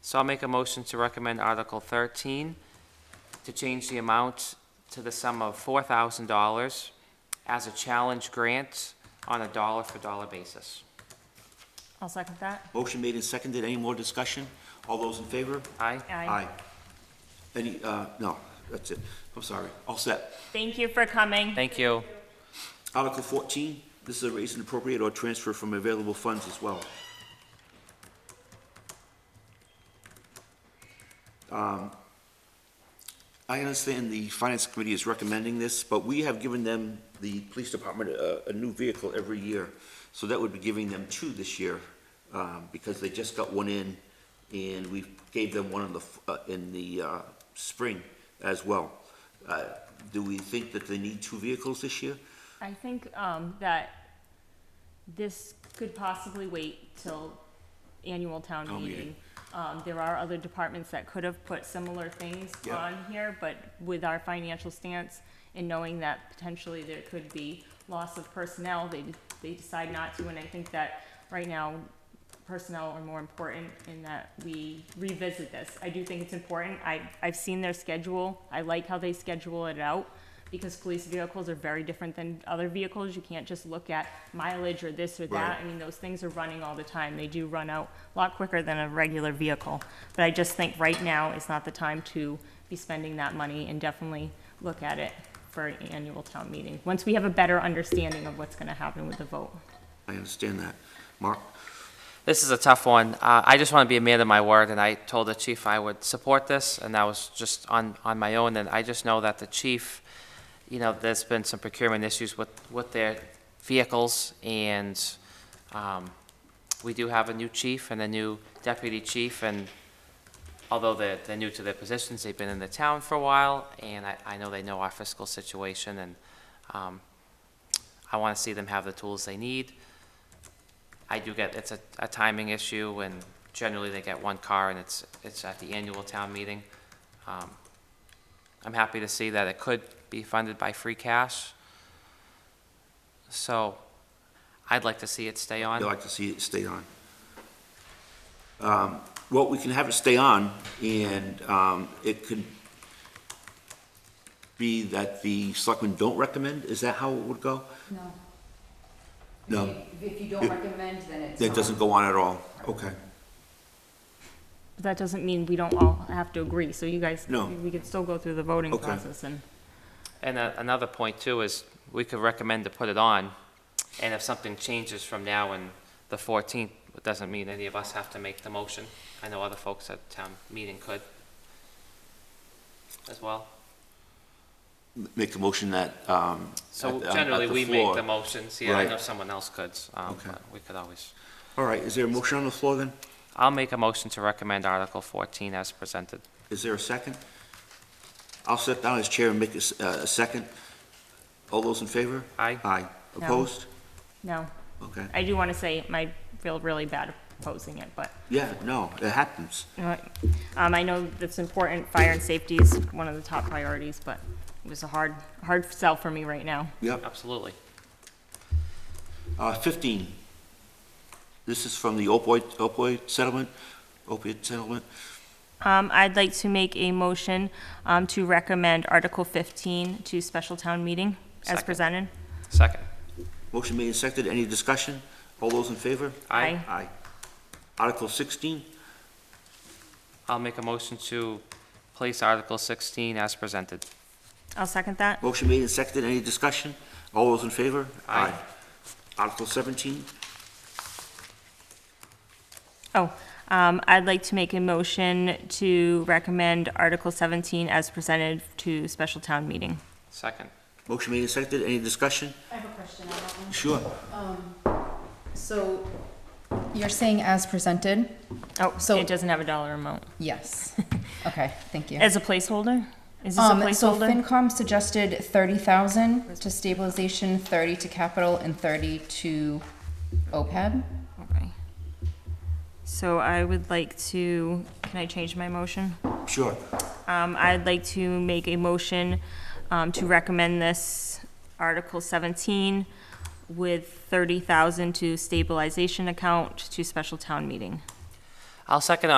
So I'll make a motion to recommend Article 13 to change the amount to the sum of $4,000 as a challenge grant on a dollar-for-dollar basis. I'll second that. Motion made and seconded. Any more discussion? All those in favor? Aye? Any, uh, no, that's it. I'm sorry. All set. Thank you for coming. Thank you. Article 14, this is a raise and appropriate or transfer from available funds as well. Um, I understand the Finance Committee is recommending this, but we have given them, the Police Department, a, a new vehicle every year. So that would be giving them two this year, um, because they just got one in, and we gave them one in the, f- uh, in the, uh, spring as well. Uh, Do we think that they need two vehicles this year? I think, um, that this could possibly wait till annual town Town meeting. meeting. Um, there are other departments that could have put similar things Yeah. on here, but with our financial stance and knowing that potentially there could be loss of personnel, they, they decide not to, and I think that right now personnel are more important in that we revisit this. I do think it's important. I, I've seen their schedule. I like how they schedule it out because police vehicles are very different than other vehicles. You can't just look at mileage or this or that. Right. I mean, those things are running all the time. They do run out a lot quicker than a regular vehicle. But I just think right now is not the time to be spending that money and definitely look at it for an annual town meeting, once we have a better understanding of what's gonna happen with the vote. I understand that. Mark, This is a tough one. Uh, I just want to be a man of my word, and I told the chief I would support this, and that was just on, on my own, and I just know that the chief, you know, there's been some procurement issues with, with their vehicles, and, um, we do have a new chief and a new deputy chief, and although they're, they're new to their positions, they've been in the town for a while, and I, I know they know our fiscal situation, and, um, I want to see them have the tools they need. I do get, it's a, a timing issue, and generally they get one car, and it's, it's at the annual town meeting. Um, I'm happy to see that it could be funded by free cash. So, I'd like to see it stay I'd on. like to see it stay on. Um, Well, we can have it stay on, and um, it could be that the selectmen don't recommend, is that how it would go? No. No, If- If you don't recommend, then it's. that doesn't go on at all, okay. But That doesn't mean we don't all have to agree, so you guys, No. we could still go through the voting Okay. process and, And a- another point too is, we could recommend to put it on, and if something changes from now and the fourteenth, it doesn't mean any of us have to make the motion. I know other folks at town meeting could as well. Make a motion that, um, So at the- at generally, the we make floor. the motions, yeah, I Right. know someone else could, um, Okay. but we could always. all right, is there a motion on the floor then? I'll make a motion to recommend Article fourteen as presented. Is there a second? I'll sit down as chair and make a s- uh, a second. All those in favor? Aye. Aye. No. Opposed? no. Okay. I do want to say, I feel really bad opposing it, but, Yeah, no, it happens. you know, what? um, I know that's important, fire and safety is one of the top priorities, but it was a hard, hard sell for me right now. Yep. Absolutely. Uh, 15, this is from the opioid, opioid settlement, opiate settlement. Um, I'd like to make a motion, um, to recommend Article fifteen to special town meeting as Second. presented. Second. Motion made and seconded, any discussion? All those in favor? Aye. Aye. Article 16, I'll make a motion to place Article sixteen as presented. I'll second that. motion made and seconded, any discussion? All those in favor? Aye. Article 17, Oh, um, I'd like to make a motion to recommend Article seventeen as presented to special town meeting. Second. motion made and seconded, any discussion? I have a question on that one. Sure. So you're saying as presented? Oh, So- it doesn't have a dollar amount. Yes. Okay, thank you. As a placeholder? Is this a Um, so placeholder? FinCom suggested thirty thousand to stabilization, thirty to capital, and thirty to E OPEB. Okay. So I would like to, can I change my motion? Sure. Um, I'd like to make a motion, um, to recommend this Article seventeen with thirty thousand to stabilization account to special town meeting. I'll second